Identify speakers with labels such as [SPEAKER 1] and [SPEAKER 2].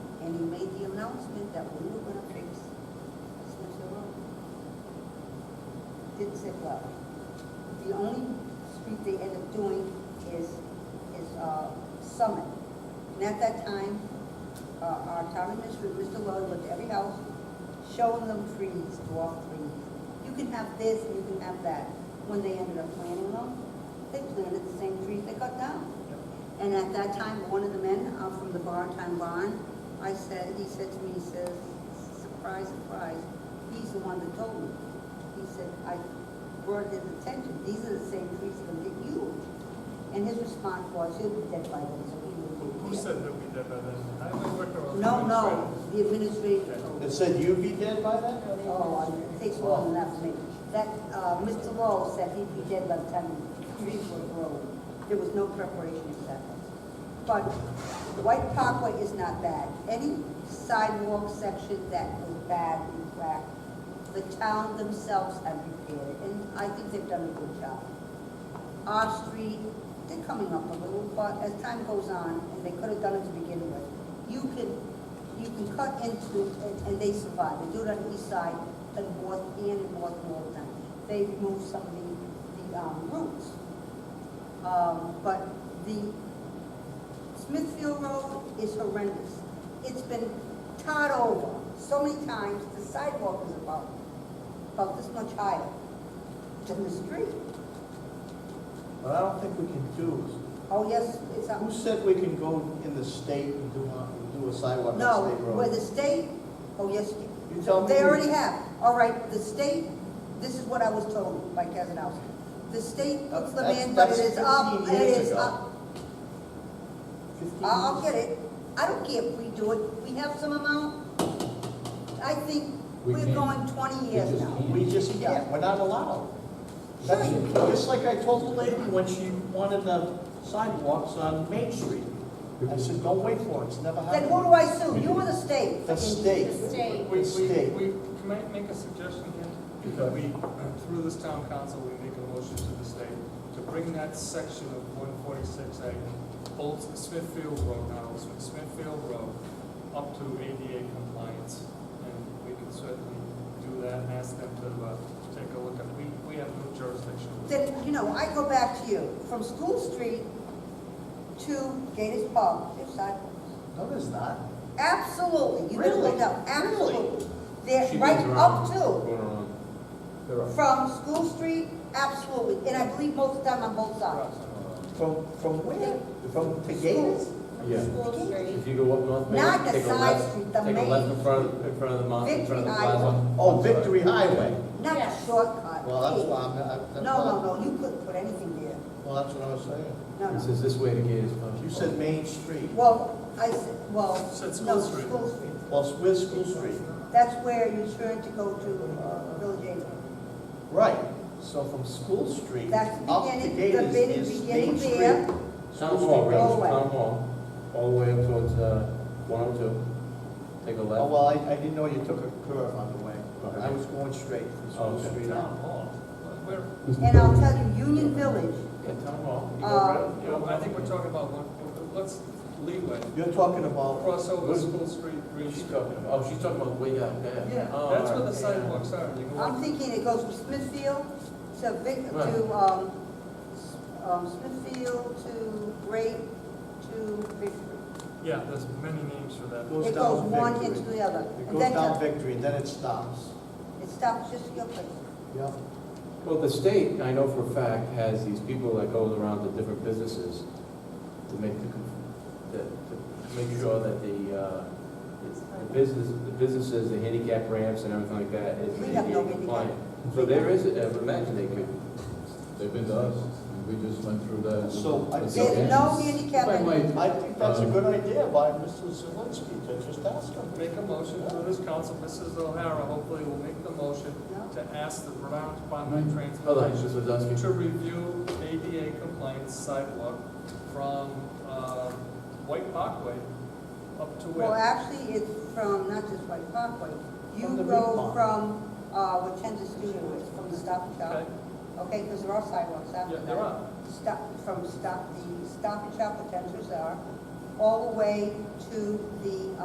[SPEAKER 1] said, well, the only street they end up doing is, is uh, Summit. And at that time, uh, our town administrator, Mr. Lloyd, went to every house, showing them trees, dwarf trees. You can have this, and you can have that. When they ended up planting them, they planted the same trees they cut down. And at that time, one of the men uh, from the Bartown Barn, I said, he said to me, he says, surprise, surprise, he's the one that told me. He said, I brought his attention, these are the same trees that are you. And his response was, he'll be dead by then, so he will be.
[SPEAKER 2] Who said that we did that? I haven't worked on.
[SPEAKER 1] No, no, the administrator told me.
[SPEAKER 3] It said you'd be dead by then?
[SPEAKER 1] Oh, I- it takes long enough for me. That, uh, Mr. Lowell said he'd be dead by the time the trees were grown. There was no preparation exactly. But White Parkway is not bad. Any sidewalk section that was bad and cracked, the town themselves have repaired it, and I think they've done a good job. Our street, they're coming up a little, but as time goes on, and they could have done it to begin with, you can, you can cut into, and- and they survive. They do it on the east side, and north, and north all the time. They remove some of the, the um, roots. Um, But the Smithfield Road is horrendous. It's been tarred over so many times, the sidewalk is about, about this much higher than the street.
[SPEAKER 3] But I don't think we can do,
[SPEAKER 1] Oh, yes, it's,
[SPEAKER 3] who
[SPEAKER 1] on-
[SPEAKER 3] said we can go in the state and do a, do a sidewalk on
[SPEAKER 1] no,
[SPEAKER 3] state road?
[SPEAKER 1] where the state, oh, yes,
[SPEAKER 3] You tell me
[SPEAKER 1] they
[SPEAKER 3] who-
[SPEAKER 1] already have. All right, the state, this is what I was told by Kazanowski. The state puts the
[SPEAKER 3] That's-
[SPEAKER 1] man, but it
[SPEAKER 3] that's
[SPEAKER 1] is up,
[SPEAKER 3] 15
[SPEAKER 1] it
[SPEAKER 3] years
[SPEAKER 1] is
[SPEAKER 3] ago.
[SPEAKER 1] up.
[SPEAKER 3] Fifteen
[SPEAKER 1] I'll I'll
[SPEAKER 3] years?
[SPEAKER 1] get it. I don't care if we do it. We have some amount. I think
[SPEAKER 4] We
[SPEAKER 1] we're
[SPEAKER 4] can.
[SPEAKER 1] going 20 years
[SPEAKER 4] just
[SPEAKER 1] now.
[SPEAKER 4] can't.
[SPEAKER 3] We just
[SPEAKER 1] Yeah.
[SPEAKER 3] can't, we're not allowed.
[SPEAKER 1] Sure
[SPEAKER 3] That's-
[SPEAKER 1] you
[SPEAKER 3] Just like I told the lady when she wanted the sidewalks on Main Street. I said, don't wait for it, it's never
[SPEAKER 1] Then who
[SPEAKER 3] happened.
[SPEAKER 1] do I sue? You or the state?
[SPEAKER 3] The state.
[SPEAKER 5] The state.
[SPEAKER 2] We, we,
[SPEAKER 3] State.
[SPEAKER 2] we, can I make a suggestion here? That we, through this town council, we make a motion to the state to bring that section of one forty-six A, Old Smithfield Road, not Old Smith, Smithfield Road, up to ADA compliance. And we can certainly do that and ask them to, uh, take a look at, we, we have no jurisdiction.
[SPEAKER 1] Then, you know, I go back to you. From School Street to Gators Park, there's sidewalks.
[SPEAKER 3] No, there's not.
[SPEAKER 1] Absolutely. You can
[SPEAKER 3] Really?
[SPEAKER 1] look up, absolutely. They're
[SPEAKER 4] She
[SPEAKER 1] right
[SPEAKER 4] goes around,
[SPEAKER 1] up to,
[SPEAKER 4] Going around. They're up.
[SPEAKER 1] from School Street, absolutely. And I believe most of the time on both sides.
[SPEAKER 3] From, from where? From to Gators?
[SPEAKER 4] Yeah.
[SPEAKER 5] School Street.
[SPEAKER 4] If you go up North
[SPEAKER 1] Not
[SPEAKER 4] Main,
[SPEAKER 1] the
[SPEAKER 4] take a
[SPEAKER 1] side
[SPEAKER 4] left,
[SPEAKER 1] street,
[SPEAKER 4] take
[SPEAKER 1] the
[SPEAKER 4] a left
[SPEAKER 1] main.
[SPEAKER 4] in front, in front of the mountain, in front of the
[SPEAKER 1] Victory Highway.
[SPEAKER 4] plaza.
[SPEAKER 3] Oh, Victory Highway.
[SPEAKER 1] Not a
[SPEAKER 5] Yes.
[SPEAKER 1] shortcut.
[SPEAKER 3] Well, that's
[SPEAKER 1] Hey.
[SPEAKER 3] why I'm, I- that's
[SPEAKER 1] No,
[SPEAKER 3] why,
[SPEAKER 1] no, no, you couldn't put anything there.
[SPEAKER 3] well, that's what I was saying.
[SPEAKER 1] No,
[SPEAKER 4] It
[SPEAKER 1] no.
[SPEAKER 4] says this way to Gators Pond.
[SPEAKER 3] You said Main Street.
[SPEAKER 1] Well, I said, well,
[SPEAKER 2] Said School
[SPEAKER 1] no,
[SPEAKER 2] Street.
[SPEAKER 1] School Street.
[SPEAKER 3] Well, it's where's School Street?
[SPEAKER 1] That's where you turn to go to uh, Village Aid.
[SPEAKER 3] Right, so from School Street
[SPEAKER 1] That's the
[SPEAKER 3] up to
[SPEAKER 1] beginning-
[SPEAKER 3] Gators
[SPEAKER 1] the beginning-
[SPEAKER 3] is
[SPEAKER 1] beginning
[SPEAKER 3] Main Street.
[SPEAKER 1] there.
[SPEAKER 4] Town Hall,
[SPEAKER 1] Go
[SPEAKER 4] right,
[SPEAKER 1] away.
[SPEAKER 4] Town Hall, all the way up towards, uh, one oh two. Take a
[SPEAKER 3] Oh,
[SPEAKER 4] left.
[SPEAKER 3] well, I, I didn't know you took a curve on the way. I was going straight from
[SPEAKER 4] Oh,
[SPEAKER 3] School
[SPEAKER 4] okay.
[SPEAKER 3] Street
[SPEAKER 2] Town
[SPEAKER 3] out.
[SPEAKER 2] hall, where,
[SPEAKER 1] And I'll tell you, Union Village,
[SPEAKER 4] Yeah, Town Hall. You go
[SPEAKER 1] Uh,
[SPEAKER 4] right-
[SPEAKER 2] you know, I think we're talking about one, let's leeway,
[SPEAKER 3] You're talking about,
[SPEAKER 2] crossover School Street, Green
[SPEAKER 4] She's
[SPEAKER 2] Street.
[SPEAKER 4] talking about, oh, she's talking about way out there.
[SPEAKER 2] Yeah,
[SPEAKER 4] Oh,
[SPEAKER 2] that's where the
[SPEAKER 4] alright, yeah.
[SPEAKER 2] sidewalks are, you go
[SPEAKER 1] I'm
[SPEAKER 2] up,
[SPEAKER 1] thinking it goes from Smithfield to Vic, to,
[SPEAKER 4] Right.
[SPEAKER 1] um, S- um, Smithfield to Great to Victory.
[SPEAKER 2] yeah, there's many names for that.
[SPEAKER 3] Goes
[SPEAKER 1] It
[SPEAKER 3] down
[SPEAKER 1] goes one
[SPEAKER 3] Victory.
[SPEAKER 1] into the other.
[SPEAKER 3] it
[SPEAKER 1] And
[SPEAKER 3] goes
[SPEAKER 1] then
[SPEAKER 3] down Victory and then it stops.
[SPEAKER 1] It stops just your place.
[SPEAKER 3] Yep.
[SPEAKER 4] Well, the state, I know for a fact, has these people that goes around to different businesses to make the, to, to make sure that the, uh, the business, the businesses, the handicap ramps and everything like that is
[SPEAKER 1] We have no
[SPEAKER 4] ADA compliant. So there is, I would imagine they could.
[SPEAKER 6] They've been to us, and we just went through that.
[SPEAKER 3] So I
[SPEAKER 6] That's
[SPEAKER 3] think-
[SPEAKER 1] There's
[SPEAKER 6] okay.
[SPEAKER 1] no handicap.
[SPEAKER 4] If I might-
[SPEAKER 3] I think that's
[SPEAKER 4] Um,
[SPEAKER 3] a good idea by Mr. Zelinski to just ask him.
[SPEAKER 2] Make a motion through this council, Mrs. O'Hara hopefully will make the motion
[SPEAKER 1] No.
[SPEAKER 2] to ask the Rhode Island Department of
[SPEAKER 4] Hmm. Hold on, just
[SPEAKER 2] Transportation
[SPEAKER 4] was asking.
[SPEAKER 2] to review ADA compliance sidewalk from, uh, White Parkway up to
[SPEAKER 1] Well,
[SPEAKER 2] where?
[SPEAKER 1] actually, it's from, not just White Parkway. You
[SPEAKER 3] From the
[SPEAKER 1] go
[SPEAKER 3] Reed Park.
[SPEAKER 1] from, uh, Wachenza Studio is, from the Stop and Shop.
[SPEAKER 2] Okay,
[SPEAKER 1] Okay, because there are sidewalks after
[SPEAKER 2] yeah,
[SPEAKER 1] that.
[SPEAKER 2] there are,
[SPEAKER 1] Stop, from Stop, the Stop and Shop, Wachenza's are, all the way to the